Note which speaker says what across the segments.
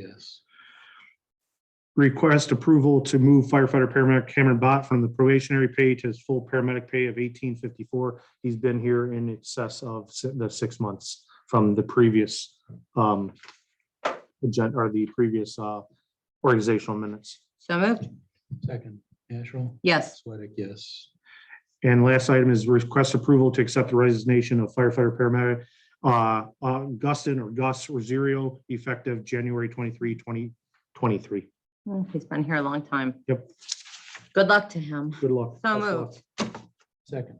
Speaker 1: Yes.
Speaker 2: Request approval to move firefighter paramedic Cameron Bott from the probationary pay to his full paramedic pay of eighteen fifty-four. He's been here in excess of si- the six months from the previous um agenda or the previous uh organizational minutes.
Speaker 3: So moved.
Speaker 1: Second, Asherle?
Speaker 3: Yes.
Speaker 1: Sweattick, yes.
Speaker 2: And last item is request approval to accept the resignation of firefighter paramedic uh uh, Guston or Gus Rosario effective January 23, 2023.
Speaker 3: Mm, He's been here a long time.
Speaker 2: Yep.
Speaker 3: Good luck to him.
Speaker 2: Good luck.
Speaker 3: So
Speaker 2: Best of luck.
Speaker 3: moved.
Speaker 1: Second.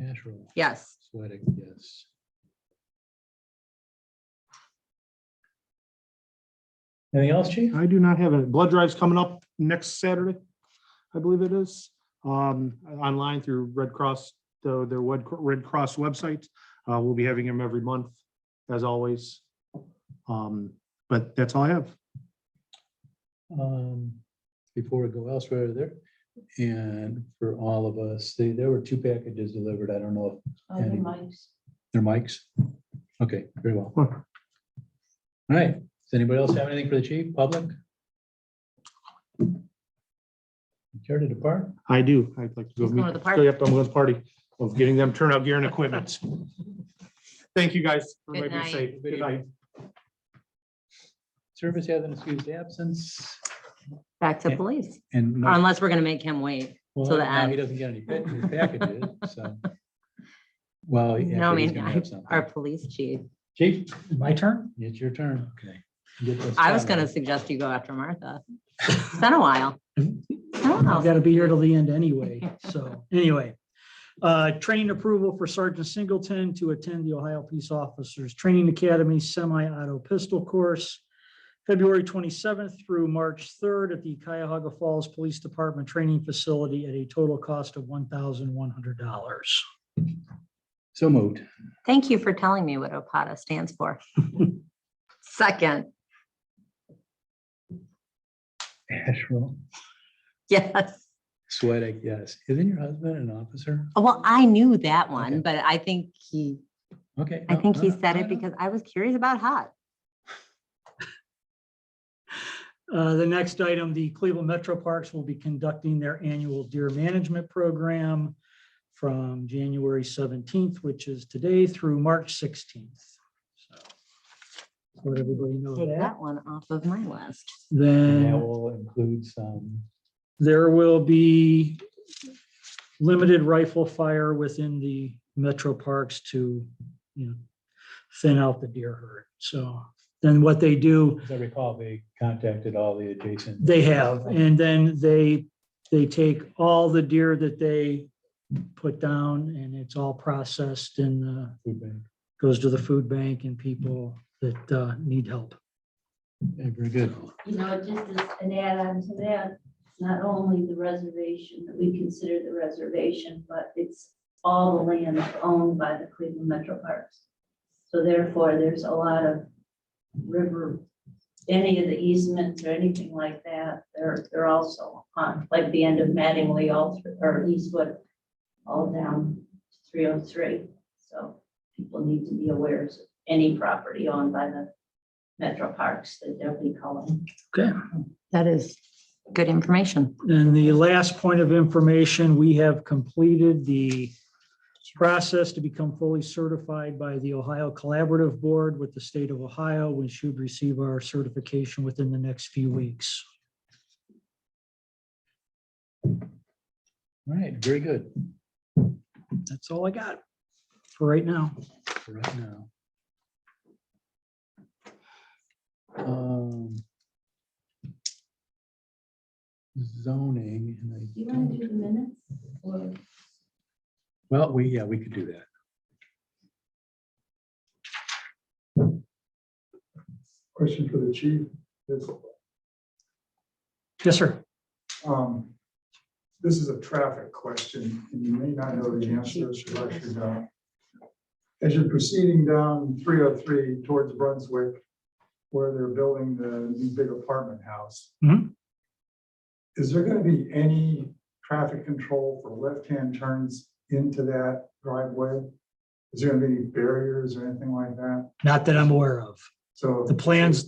Speaker 1: Asherle?
Speaker 3: Yes.
Speaker 1: Sweattick, yes. Anything else, chief?
Speaker 2: I do not have it. Blood drive's coming up next Saturday, I believe it is, um, online through Red Cross, the, their Wed- Red Cross website. Uh, we'll be having them every month, as always. Um, but that's all I have.
Speaker 1: Um, Before we go elsewhere there, and for all of us, they- there were two packages delivered. I don't know if
Speaker 4: Oh, the
Speaker 1: Anyway.
Speaker 4: mics.
Speaker 1: they're mics. Okay, very well.
Speaker 2: Huh.
Speaker 1: All right. Does anybody else have anything for the chief, public? Care to depart?
Speaker 2: I do. I'd like to go
Speaker 3: He's going to
Speaker 2: meet,
Speaker 3: the
Speaker 2: go
Speaker 3: party.
Speaker 2: up to the party of getting them turnout gear and equipment. Thank you, guys.
Speaker 3: Good
Speaker 2: Everybody be
Speaker 3: night.
Speaker 2: safe. Good night.
Speaker 1: Service has an excused absence
Speaker 3: Back to
Speaker 1: Yeah.
Speaker 3: police.
Speaker 1: and.
Speaker 3: Or
Speaker 1: no-
Speaker 3: Unless we're going to make him wait.
Speaker 1: Well,
Speaker 3: the
Speaker 1: now he
Speaker 3: end.
Speaker 1: doesn't get any pa- his packages, so. Well. yeah,
Speaker 3: No, I
Speaker 1: but he's
Speaker 3: mean,
Speaker 1: gonna
Speaker 3: I-
Speaker 1: have something.
Speaker 3: Our police chief.
Speaker 1: Chief,
Speaker 5: My turn?
Speaker 1: it's your turn. Okay.
Speaker 3: I was going to suggest you go after Martha. It's been a while.
Speaker 5: I've got to be here till the end anyway. So anyway, uh, training approval for Sergeant Singleton to attend the Ohio Peace Officers Training Academy Semi-Auto Pistol Course, February 27th through March 3rd at the Cuyahoga Falls Police Department Training Facility at a total cost of $1,100.
Speaker 1: So moved.
Speaker 3: Thank you for telling me what OPATA stands for. Second.
Speaker 1: Asherle,
Speaker 3: Yes.
Speaker 1: Sweattick, yes. Isn't your husband an officer?
Speaker 3: Well, I knew that
Speaker 1: Okay.
Speaker 3: one, but I think he,
Speaker 1: Okay.
Speaker 3: I
Speaker 1: no,
Speaker 3: think
Speaker 1: no,
Speaker 3: he
Speaker 1: no,
Speaker 3: said
Speaker 1: no,
Speaker 3: it
Speaker 1: no.
Speaker 3: because I was curious about hot.
Speaker 5: Uh, The next item, the Cleveland Metro Parks will be conducting their annual deer management program from January 17th, which is today, through March 16th. So Let everybody know
Speaker 3: Take
Speaker 5: that.
Speaker 3: that one off of my list.
Speaker 1: And that
Speaker 5: Then
Speaker 1: will include some,
Speaker 5: there will be limited rifle fire within the metro parks to, you know, thin out the deer herd. So then what they do
Speaker 1: as I recall, they contacted all the adjacent.
Speaker 5: They have, and then they, they take all the deer that they put down and it's all processed and uh,
Speaker 1: food bank.
Speaker 5: goes to the food bank and people that uh, need help.
Speaker 1: Yeah, Very good.
Speaker 4: You know, just as an add-on to that, it's not only the reservation, that we consider the reservation, but it's all the land owned by the Cleveland Metro Parks. So therefore, there's a lot of river, any of the easements or anything like that, they're, they're also on, like the end of Mattingly, all, thr- or Eastwood, all down three oh three. So people need to be aware of any property owned by the Metro Parks that they'll be calling.
Speaker 5: Okay.
Speaker 3: That is good information.
Speaker 5: And the last point of information, we have completed the process to become fully certified by the Ohio Collaborative Board with the state of Ohio. We should receive our certification within the next few weeks.
Speaker 1: All right, very good
Speaker 5: That's all I got for right now.
Speaker 1: for right now. Um, Zoning. and I
Speaker 4: Do you
Speaker 1: don't-
Speaker 4: want to do the minutes? or-
Speaker 1: Well, we, yeah, we could do that.
Speaker 6: question for the chief is,
Speaker 5: Yes, sir.
Speaker 6: um, this is a traffic question, and you may not know the answer, so I should know. As you're proceeding down three oh three towards Brunswick, where they're building the new big apartment house.
Speaker 5: Mhm.
Speaker 6: Is there gonna be any traffic control for left-hand turns into that driveway? Is there gonna be any barriers or anything like that?
Speaker 5: Not that I'm aware of.
Speaker 6: So.
Speaker 5: The plans